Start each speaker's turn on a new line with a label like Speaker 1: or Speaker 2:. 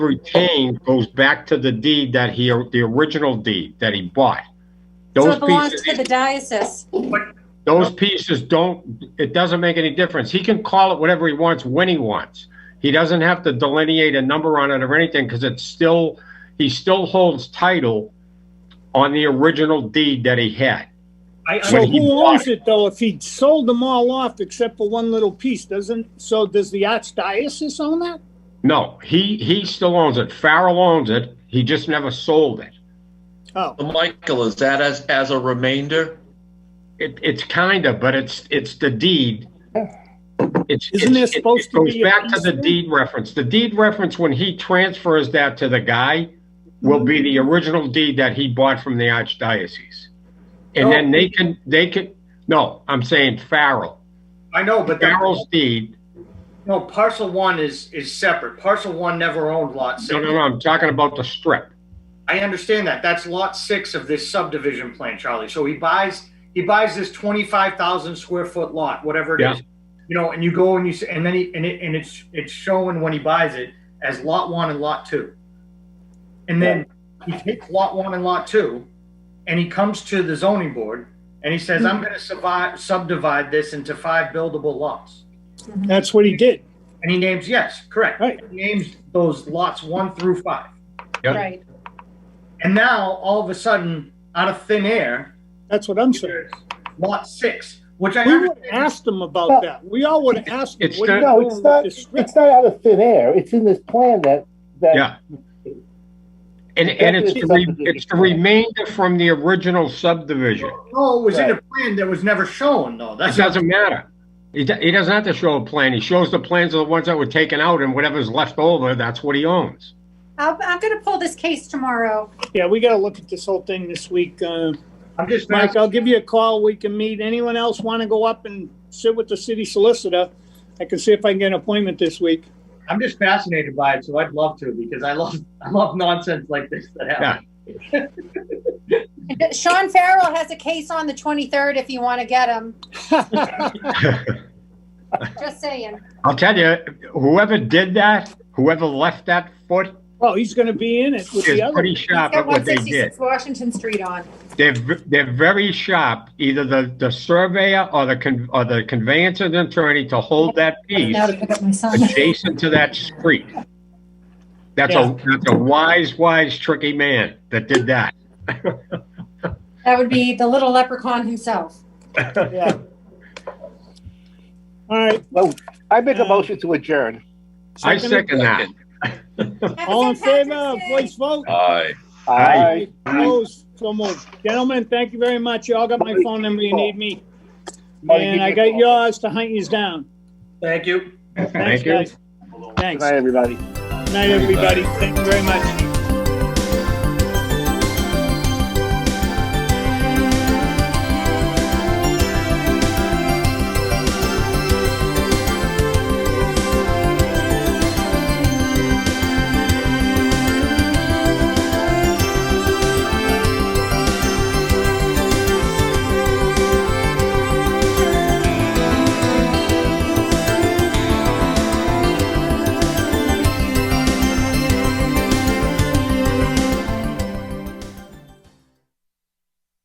Speaker 1: retained goes back to the deed that he, the original deed that he bought.
Speaker 2: So
Speaker 1: Those
Speaker 2: it belongs
Speaker 1: pieces,
Speaker 2: to the diocese.
Speaker 1: those pieces don't, it doesn't make any difference. He can call it whatever he wants when he wants. He doesn't have to delineate a number on it or anything because it's still, he still holds title on the original deed that he had.
Speaker 3: I, I,
Speaker 1: When
Speaker 4: So
Speaker 1: he
Speaker 4: who
Speaker 1: bought
Speaker 4: owns it though? If he sold them all off except for one little piece, doesn't, so does the archdiocese own that?
Speaker 1: No, he, he still owns it. Farrell owns it. He just never sold it.
Speaker 4: Oh,
Speaker 5: Michael, is that as, as a remainder?
Speaker 1: It, it's kind of, but it's, it's the deed. It's,
Speaker 4: Oh. Isn't there
Speaker 1: it's- it-
Speaker 4: supposed
Speaker 1: it
Speaker 4: to be a
Speaker 1: Goes back to the
Speaker 4: piece?
Speaker 1: deed reference. The deed reference, when he transfers that to the guy, will be
Speaker 4: Mm-hmm.
Speaker 1: the original deed that he bought from the archdiocese. And then they
Speaker 4: Oh.
Speaker 1: can, they can, no, I'm saying Farrell.
Speaker 3: I know, but that,
Speaker 1: Farrell's deed,
Speaker 3: no, parcel one is, is separate. Parcel one never owned lot six.
Speaker 1: no, no, no, I'm talking about the strip.
Speaker 3: I understand that. That's lot six of this subdivision plan, Charlie. So he buys, he buys this twenty-five thousand square foot lot, whatever it
Speaker 1: Yeah.
Speaker 3: is. You know, and you go and you, s- and then he, and it, and it's, it's shown when he buys it as lot one and lot two. And then he takes lot one and lot two, and he comes to the zoning board and he says, I'm gonna survive, subdivide this into five buildable lots.
Speaker 4: that's what he did.
Speaker 3: And he names, yes, correct.
Speaker 4: Right.
Speaker 3: He Names those lots one through five.
Speaker 1: Yeah.
Speaker 2: Right.
Speaker 3: And now, all of a sudden, out of thin air,
Speaker 4: That's what I'm saying.
Speaker 3: there's lot six, which I
Speaker 4: We would have
Speaker 3: understand.
Speaker 4: asked him about that. We all would have asked him,
Speaker 1: It's
Speaker 4: what are you
Speaker 1: not-
Speaker 6: No, it's
Speaker 4: doing with
Speaker 6: not,
Speaker 4: this strip?
Speaker 6: it's not out of thin air. It's in this plan that, that,
Speaker 1: Yeah. And, and it's the, re- it's the remainder from the original subdivision.
Speaker 3: No, it was in a plan that was never shown, though.
Speaker 1: It
Speaker 3: That's
Speaker 1: doesn't matter. He, do- he doesn't have to show a plan. He shows the plans of the ones that were taken out and whatever's left over, that's what he owns.
Speaker 2: I'll, I'm going to pull this case tomorrow.
Speaker 4: Yeah, we gotta look at this whole thing this week. Uh,
Speaker 3: I'm just
Speaker 4: Mike,
Speaker 3: asking.
Speaker 4: I'll give you a call. We can meet. Anyone else wanna go up and sit with the city solicitor? I can see if I can get an appointment this week.
Speaker 3: I'm just fascinated by it, so I'd love to because I love I love nonsense like this that happens.
Speaker 2: Sean Farrell has a case on the 23rd if you want to get him. Just saying.
Speaker 1: I'll tell you, whoever did that, whoever left that foot
Speaker 4: Well, he's gonna be in it with
Speaker 1: is
Speaker 4: the other.
Speaker 1: pretty sharp at
Speaker 2: Got
Speaker 1: what they did.
Speaker 2: 166 Washington Street on.
Speaker 1: They're, v- they're very sharp, either the, the surveyor or the, con- or the conveyancer and attorney to hold that piece
Speaker 2: Now to pick up my son.
Speaker 1: adjacent to that street. That's
Speaker 4: Yeah.
Speaker 1: a, that's a wise, wise, tricky man that did that.
Speaker 2: That would be the little leprechaun himself.
Speaker 4: Yeah. All right.
Speaker 6: well, I make a motion to adjourn.
Speaker 1: I second that.
Speaker 2: Have a
Speaker 4: All in
Speaker 2: St. Patrick's
Speaker 4: favor,
Speaker 2: Day.
Speaker 4: voice vote.
Speaker 5: Aye.
Speaker 1: Aye.
Speaker 4: Opposed, so moved. Gentlemen, thank you very much. You all got my phone number. You need me.
Speaker 6: Marty, give
Speaker 4: And
Speaker 6: me
Speaker 4: I
Speaker 6: a
Speaker 4: got
Speaker 6: call.
Speaker 4: yours to hunt yous down.
Speaker 3: Thank you.
Speaker 4: Thanks,
Speaker 1: you.
Speaker 4: guys.
Speaker 6: Good
Speaker 4: Thanks.
Speaker 6: night, everybody.
Speaker 4: Good night, everybody. Thank you very much.